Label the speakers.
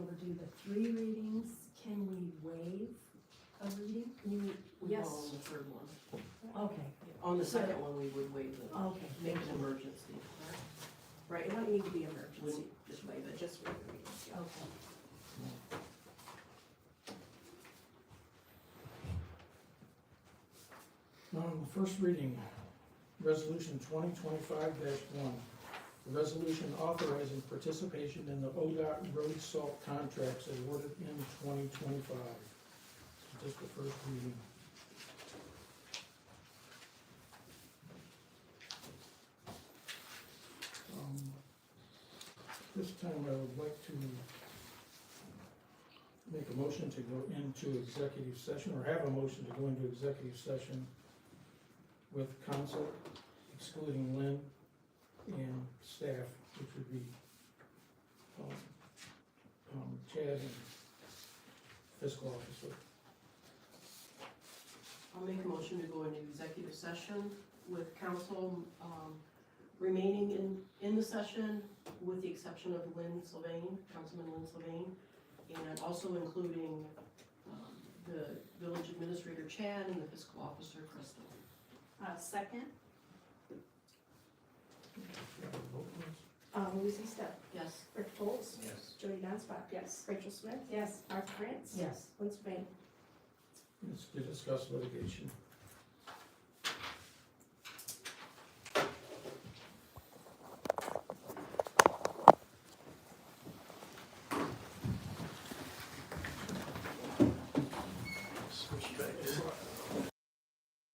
Speaker 1: three readings, can we waive a reading?
Speaker 2: You, we will
Speaker 1: Yes.
Speaker 2: on the third one.
Speaker 1: Okay,
Speaker 2: On the
Speaker 1: So-
Speaker 2: second one, we would waive the,
Speaker 1: okay,
Speaker 2: make an emergency.
Speaker 3: Right, it wouldn't need to be emergency,
Speaker 2: Wouldn't, just waive
Speaker 3: but
Speaker 2: it.
Speaker 3: just for the readings, yeah.
Speaker 1: okay.
Speaker 4: Now, on the first reading, resolution twenty twenty-five one. A resolution authorizing participation in the ODOT road salt contracts awarded in twenty twenty-five. Just the first reading. Um, This time I would like to make a motion to go into executive session, or have a motion to go into executive session with council, excluding Lynn and staff, which would be um, um, Chad and fiscal officer.
Speaker 2: I'll make a motion to go into executive session with council, um, remaining in, in the session with the exception of Lynn Sylvain, Councilman Lynn Sylvain, and also including, um, the village administrator Chad and the fiscal officer Crystal.
Speaker 3: Uh, second,
Speaker 5: Uh, Lucy Step,
Speaker 2: Yes?
Speaker 5: Rick Foltz,
Speaker 6: Yes.
Speaker 5: Jody Nonspot,
Speaker 3: yes.
Speaker 5: Rachel Smith,
Speaker 3: Yes.
Speaker 5: Art France,
Speaker 1: Yes.
Speaker 5: Lindsey Vonn.
Speaker 4: It's to discuss litigation.